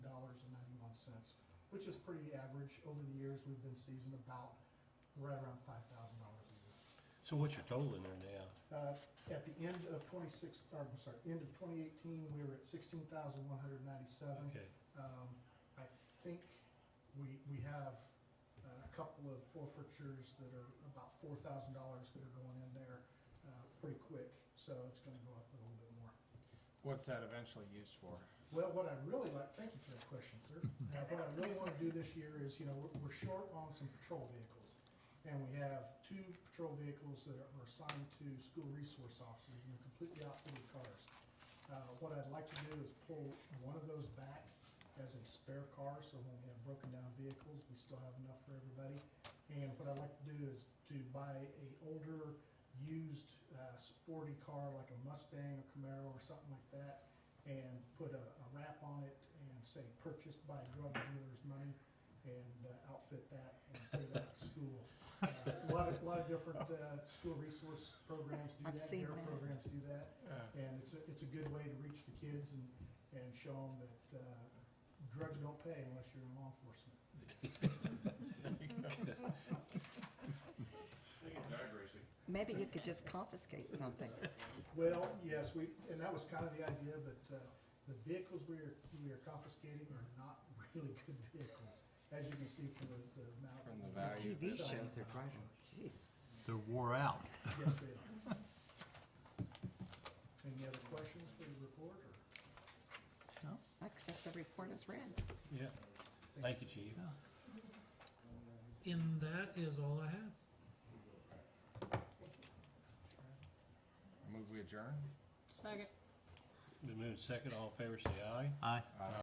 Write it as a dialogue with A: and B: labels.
A: which is pretty average. Over the years, we've been seasoned about right around five thousand dollars a year.
B: So what's your total in there now?
A: Uh, At the end of twenty-six, or, I'm sorry, end of twenty eighteen, we were at sixteen thousand one hundred ninety-seven.
B: Okay,
A: Um, I think we, we have uh, a couple of forfeitures that are about four thousand dollars that are going in there, uh, pretty quick, so it's gonna go up a little bit more.
C: What's that eventually used for?
A: Well, what I really like, thank you for that question, sir. Uh, What I really want to do this year is, you know, we're, we're short on some patrol vehicles. And we have two patrol vehicles that are assigned to school resource officers, and they're completely outfitted cars. Uh, what I'd like to do is pull one of those back as a spare car, so when we have broken down vehicles, we still have enough for everybody. And what I'd like to do is to buy a older, used, uh, sporty car, like a Mustang or Camaro or something like that, and put a, a wrap on it and say purchased by drug dealer's money and uh, outfit that and put it out to school. Uh, A lot of, a lot of different, uh, school resource programs do that,
D: I've seen
A: their
D: that.
A: programs do that.
C: Uh,
A: And it's a, it's a good way to reach the kids and, and show them that, uh, drugs don't pay unless you're in law enforcement.
D: Maybe you could just confiscate something.
A: Well, yes, we, and that was kind of the idea, but, uh, the vehicles we are, we are confiscating are not really good vehicles, as you can see from the, the amount.
C: From the
D: The
C: value.
D: TV shows are driving, jeez.
B: they're wore out.
A: Yes, they are. Any other questions for the report, or?
D: I accept the report as read.
B: Yeah. Thank you, chief.
E: And that is all I have.
C: Move we adjourn?
D: Second.
B: Been moved second, all in favor, say aye.
C: Uh,
F: Aye.